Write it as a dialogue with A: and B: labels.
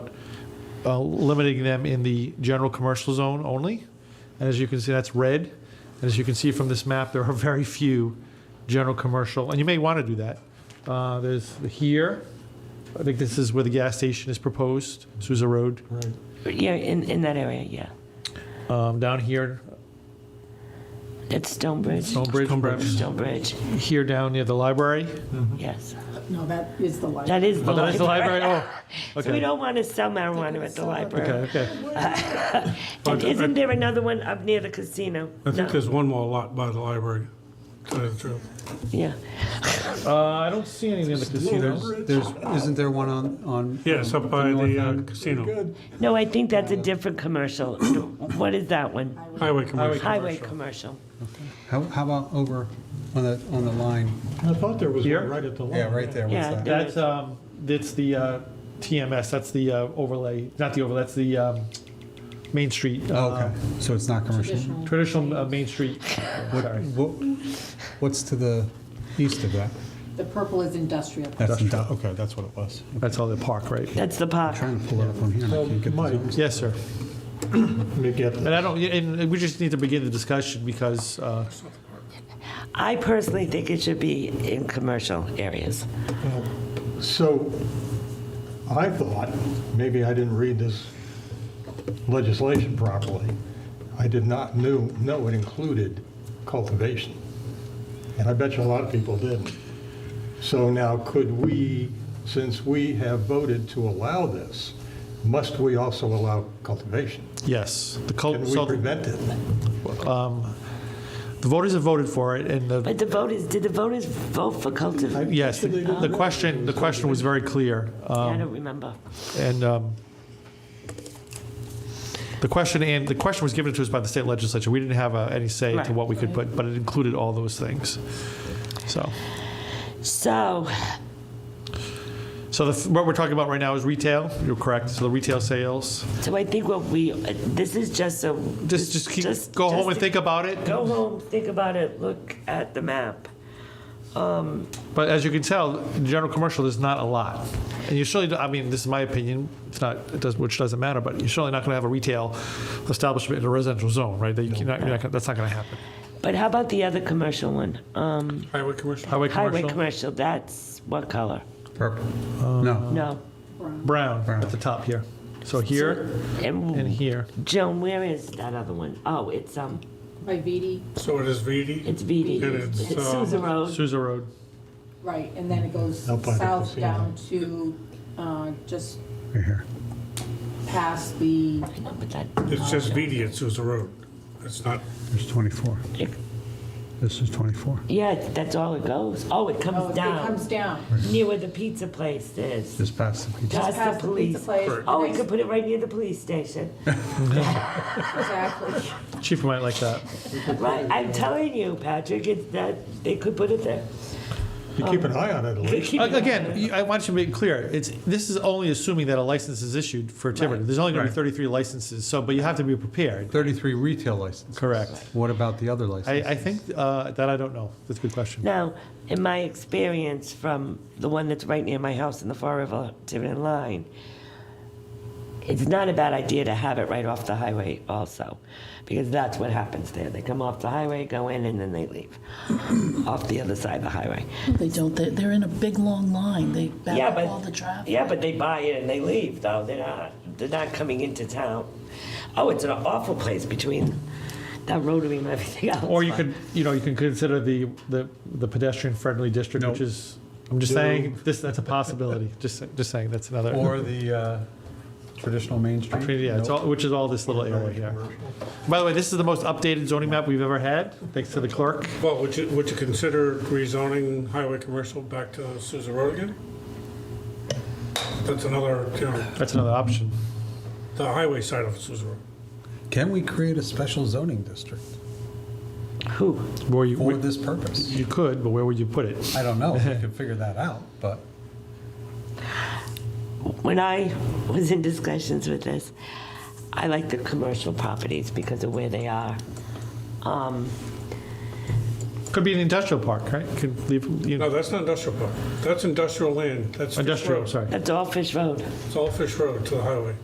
A: uh, limiting them in the general commercial zone only. And as you can see, that's red. And as you can see from this map, there are very few general commercial, and you may want to do that. Uh, There's here, I think this is where the gas station is proposed, Sousa Road.
B: Yeah, in, in that area, yeah.
A: Um, Down here,
B: That's Stonebridge.
A: Stonebridge, perhaps.
B: Stonebridge,
A: here down near the library.
B: yes.
C: No, that is the light.
B: That is the
A: Oh, that is the library, oh,
B: So we
A: okay.
B: don't want to sell marijuana at the
A: Okay,
B: library.
A: okay.
B: And
D: I-
B: isn't there another one up near the casino?
D: I think
B: No.
D: there's one more lot by the library, to tell you the truth.
B: Yeah,
A: Uh, I don't see anything in the casino.
E: There's, there's, isn't there one on, on?
D: Yes, up by the uh, casino,
B: no, I think that's a different commercial. What is that one?
D: highway commercial.
B: Highway commercial.
E: How, how about over on the, on the line?
F: I thought there was
A: Here?
F: one right at the line.
E: Yeah, right there,
B: Yeah,
E: what's that?
B: there-
A: That's, um, that's the uh, TMS, that's the uh, overlay, not the overlay, that's the um, Main Street. uh,
E: Oh, Okay, so it's not commercial.
A: Traditional uh, Main Street, sorry.
E: What, what's to the east of that?
C: The purple is industrial.
E: That's, indu- okay, that's what it was. I'm
A: That's all the park, right?
B: That's the park.
E: Trying to pull it up on here and I
F: So,
E: can't get the
F: Mike,
E: zones.
A: Yes, sir.
F: let me get
A: And
F: that.
A: I don't, and we just need to begin the discussion because, uh,
B: I personally think it should be in commercial areas.
F: So I thought, maybe I didn't read this legislation properly. I did not knew, know it included cultivation. And I bet you a lot of people didn't. So now could we, since we have voted to allow this, must we also allow cultivation?
A: yes. the cul-
F: Can we
A: so
F: prevent it?
A: The voters have voted for it and the
B: But the voters, did the voters vote for cultivation?
A: Yes, the- the question, the question was very clear.
B: I
A: um,
B: don't remember.
A: And um, the question, and the question was given to us by the state legislature. We didn't have uh, any say
B: Right.
A: to what we could put, but it included all those things. So,
B: So,
A: so the- what we're talking about right now is retail. You're correct. So the retail sales.
B: so I think what we, this is just so.
A: Just, just keep, go home and think about it.
B: Go home, think about it, look at the map.
A: But as you can tell, in general commercial, there's not a lot. And you surely, I mean, this is my opinion, it's not, it does, which doesn't matter, but you're surely not going to have a retail establishment in a residential zone, right? That you cannot, you're not gonna- that's not going to happen.
B: But how about the other commercial one? Um,
D: Highway commercial.
A: Highway
B: highway
A: commercial,
B: commercial, that's what color?
E: Purple. Um, No,
B: No.
A: brown
E: Brown.
A: at the top here. So here and
B: And
A: here.
B: Joan, where is that other one? Oh, it's, um,
C: By VD,
D: So it is VD,
B: it's BD.
D: And it's,
B: It's
D: um,
B: Sousa Road.
A: Sousa Road.
C: right, and then it goes
F: Up by the
C: south
F: casino.
C: down to, uh, just
E: right here.
C: past the,
B: I know, but that,
D: it's just VD at Sousa Road. It's not,
E: There's 24. This is 24.
B: yeah, that's all it goes. Oh, it
C: oh,
B: comes
C: it
B: down,
C: comes down.
B: near where the pizza place is.
E: Just past the pizza.
B: Past the
C: Past the pizza
B: police.
C: place.
B: Oh, we
C: next-
B: could put it right near the police station.
C: Exactly.
A: Chief might like that.
B: Right, I'm telling you, Patrick, it's that, they could put it there.
F: You keep an eye on it at least.
A: Again, you- I want you to make clear, it's, this is only assuming that a license is issued for Tiverton. There's only going to be
E: Right.
A: 33 licenses, so, but you have to be prepared.
E: 33 retail licenses.
A: Correct.
E: What about the other
A: I,
E: license?
A: I think, uh, that I don't know. That's a good question.
B: Now, in my experience from the one that's right near my house in the Far River Tiverton line, it's not a bad idea to have it right off the highway also, because that's what happens there. They come off the highway, go in, and then they leave off the other side of the highway.
G: They don't, they're, they're in a big, long line, they back
B: Yeah,
G: up
B: but
G: all the traffic.
B: Yeah, but they buy it and they leave, though. They're not, they're not coming into town. Oh, it's an awful place between that rotary and everything else.
A: Or you could, you know, you can consider the, the, the pedestrian-friendly district, which
E: Nope.
A: is, I'm just saying, this, that's a possibility. Just, just saying, that's another.
E: Or the uh, traditional Main Street?
A: Yeah, it's all, which is all this little area here. By the way, this is the most updated zoning map we've ever had, thanks to the clerk.
D: well, would you, would you consider rezoning highway commercial back to Sousa Road again? That's another, you know,
A: That's another option.
D: the highway side of Sousa Road.
E: Can we create a special zoning district
B: Who?
A: Where you,
E: for
A: where-
E: this purpose?
A: you could, but where would you put it?
E: I don't know if we can figure that out, but
B: When I was in discussions with this, I like the commercial properties because of where they are.
A: Could be an industrial park, right? Could leave, you
D: No,
A: know,
D: that's not industrial park. That's industrial land. That's Fish
A: industrial,
D: Road.
A: sorry.
B: That's all Fish Road.
D: It's all Fish Road to the highway.